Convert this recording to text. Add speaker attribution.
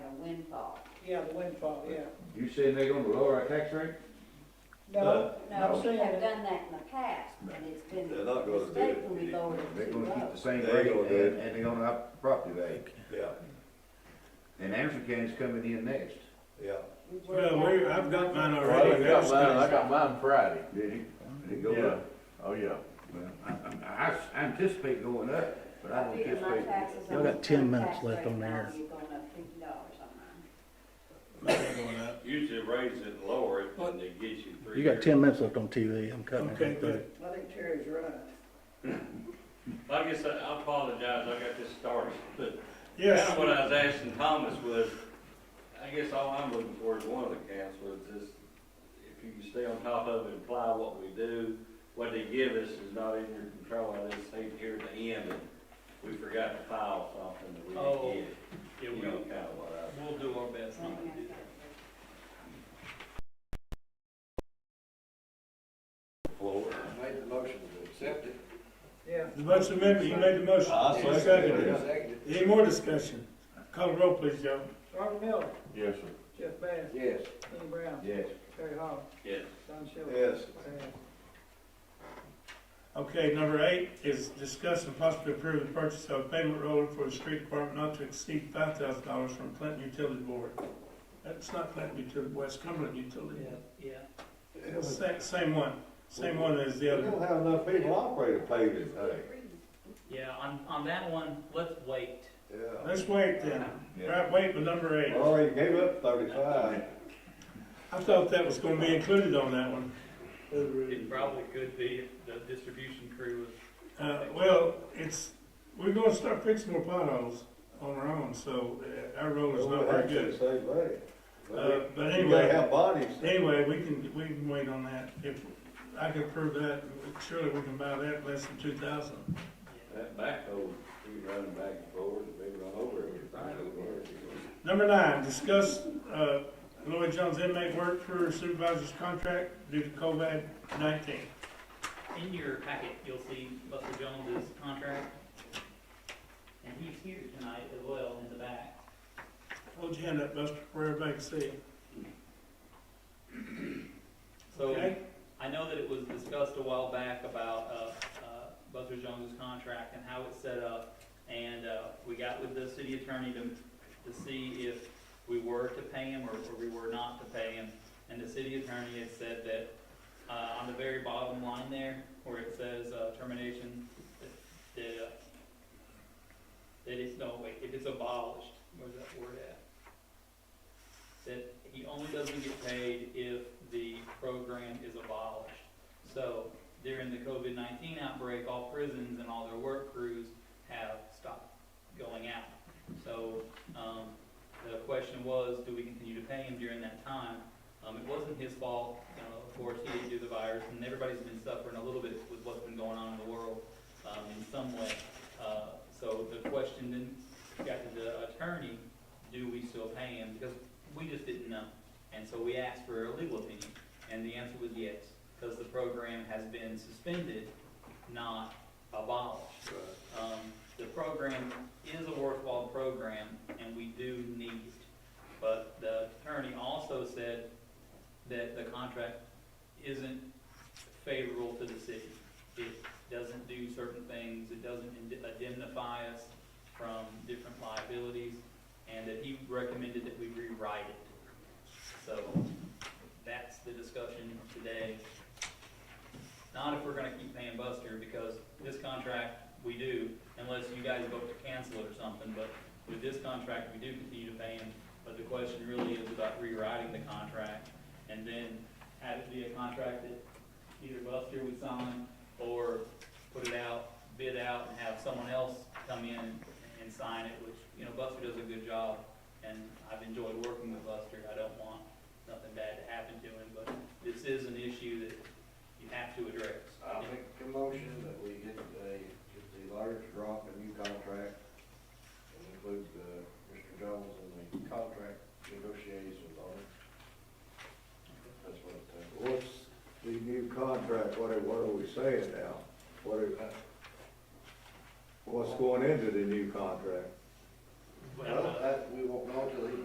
Speaker 1: yeah, the windfall, yeah.
Speaker 2: You saying they're gonna lower our tax rate?
Speaker 3: Uh,
Speaker 1: No,
Speaker 4: No,
Speaker 1: I'm
Speaker 4: we
Speaker 1: saying
Speaker 4: have
Speaker 1: that,
Speaker 4: done that in the past, and it's been
Speaker 3: They're not gonna do it.
Speaker 4: mistakenly lowered
Speaker 2: They're
Speaker 4: too
Speaker 2: gonna keep
Speaker 4: low.
Speaker 2: the same
Speaker 3: They're
Speaker 2: rate
Speaker 3: gonna do
Speaker 2: and,
Speaker 3: it.
Speaker 2: and they're gonna up property value.
Speaker 3: Yeah,
Speaker 2: And Anderson County's coming in next.
Speaker 3: yeah.
Speaker 4: We worked
Speaker 5: Well,
Speaker 4: out-
Speaker 5: we, I've got mine
Speaker 6: Well, I
Speaker 5: already.
Speaker 6: got mine, I got mine Friday.
Speaker 2: Did you? Did it go
Speaker 6: Yeah,
Speaker 2: up?
Speaker 6: oh, yeah.
Speaker 2: Well, I, I, I anticipate going up, but I
Speaker 4: I
Speaker 2: don't
Speaker 4: figured my
Speaker 2: anticipate.
Speaker 4: taxes
Speaker 7: Y'all
Speaker 4: on
Speaker 7: got
Speaker 4: the
Speaker 7: 10
Speaker 4: current
Speaker 7: minutes
Speaker 4: tax
Speaker 7: left
Speaker 4: rate
Speaker 7: on the
Speaker 4: now
Speaker 7: air.
Speaker 4: is going up fifty dollars on mine.
Speaker 5: Mine going up.
Speaker 8: Usually raise it and lower it, and they get you three.
Speaker 7: You got
Speaker 8: years.
Speaker 7: ten minutes left on TV, I'm cutting
Speaker 5: Okay,
Speaker 7: it.
Speaker 5: good.
Speaker 1: I think Terry's right.
Speaker 8: Like I said, I apologize, I got this started, but kind
Speaker 5: Yes,
Speaker 8: of what I was asking Thomas was, I guess all I'm looking for is one of the councils, is if you can stay on top of it, apply what we do, what they give us is not in your control, I just hate here at the end, and we forgot to file something that we
Speaker 9: Oh,
Speaker 8: didn't
Speaker 9: Yeah,
Speaker 8: get, you know,
Speaker 9: we'll,
Speaker 8: kind of what I.
Speaker 9: we'll do our best
Speaker 4: Something
Speaker 9: not to do
Speaker 4: like
Speaker 9: that.
Speaker 4: that.
Speaker 3: I made the motion to accept it.
Speaker 1: Yeah,
Speaker 5: the motion amendment, you made the motion.
Speaker 3: I
Speaker 5: Uh, I seconded it. Any more discussion? Call the roll, please, Joe.
Speaker 1: Robert Miller,
Speaker 6: Yes, sir.
Speaker 1: Jeff Bass,
Speaker 3: Yes.
Speaker 1: Kenny Brown,
Speaker 2: Yes.
Speaker 1: Terry Hall,
Speaker 8: Yes.
Speaker 1: Don Shelby.
Speaker 3: Yes.
Speaker 1: Sam.
Speaker 5: Okay, number eight is discuss and possibly approve the purchase of a payment roller for the street department not to exceed five thousand dollars from Clinton Utility Board. That's not Clinton Utility, West Cumberland Utility.
Speaker 9: Yeah,
Speaker 5: Same, same one, same one as the
Speaker 3: We
Speaker 5: other.
Speaker 3: don't have enough people operating to pay this thing.
Speaker 9: yeah, yeah, on, on that one, let's wait.
Speaker 3: Yeah.
Speaker 5: Let's wait then.
Speaker 2: Yeah.
Speaker 5: Right, wait for number eight.
Speaker 3: Already gave up thirty-five.
Speaker 5: I thought that was gonna be included on that one.
Speaker 9: It probably could be if the distribution crew was
Speaker 5: Uh, well, it's, we're gonna start fixing more potholes on our own, so uh, our road is not very good.
Speaker 3: Same way.
Speaker 5: Uh, but
Speaker 3: You gotta
Speaker 5: anyway,
Speaker 3: have bodies.
Speaker 5: anyway, we can, we can wait on that. If I can prove that, surely we can buy that less than two thousand.
Speaker 8: That backhoe, he running back and forth, and they run over everything over there.
Speaker 5: Number nine, discuss, uh, Lloyd Jones inmate work for supervisor's contract due to COVID nineteen.
Speaker 9: In your packet, you'll see Buster Jones's contract. And he's here tonight as well in the back.
Speaker 5: Hold your hand up, Buster, for everybody to see.
Speaker 9: So
Speaker 5: Okay?
Speaker 9: I know that it was discussed a while back about, uh, uh, Buster Jones's contract and how it's set up. And, uh, we got with the city attorney to, to see if we were to pay him or, or we were not to pay him. And the city attorney had said that, uh, on the very bottom line there, where it says, uh, termination, that- that, uh, that it's, no, wait, if it's abolished, where's that word at? that he only doesn't get paid if the program is abolished. So during the COVID nineteen outbreak, all prisons and all their work crews have stopped going out. So, um, the question was, do we continue to pay him during that time? Um, it wasn't his fault, you know, of course, he didn't do the virus, and everybody's been suffering a little bit with what's been going on in the world, um, in some way. Uh, so the question then got to the attorney, do we still pay him? Because we just didn't know. And so we asked for a legal opinion, and the answer was yes, because the program has been suspended, not abolished. Um, the program is a worthwhile program, and we do need it. But the attorney also said that the contract isn't favorable to the city. It doesn't do certain things, it doesn't indemnify us from different liabilities, and that he recommended that we rewrite it. So that's the discussion today. Not if we're gonna keep paying Buster, because this contract, we do, unless you guys vote to cancel it or something, but with this contract, we do continue to pay him. But the question really is about rewriting the contract, and then have it be a contract that either Buster would sign, or put it out, bid out, and have someone else come in and sign it, which, you know, Buster does a good job, and I've enjoyed working with Buster, I don't want nothing bad to happen to him, but this is an issue that you have to address.
Speaker 3: I make the motion that we get a, just a large drop in new contract and include, uh, Mr. Jones in the contract negotiations on it. That's what it takes. What's the new contract, what are, what are we saying now? What are, what's going into the new contract?
Speaker 9: Well,
Speaker 3: that, we won't know till he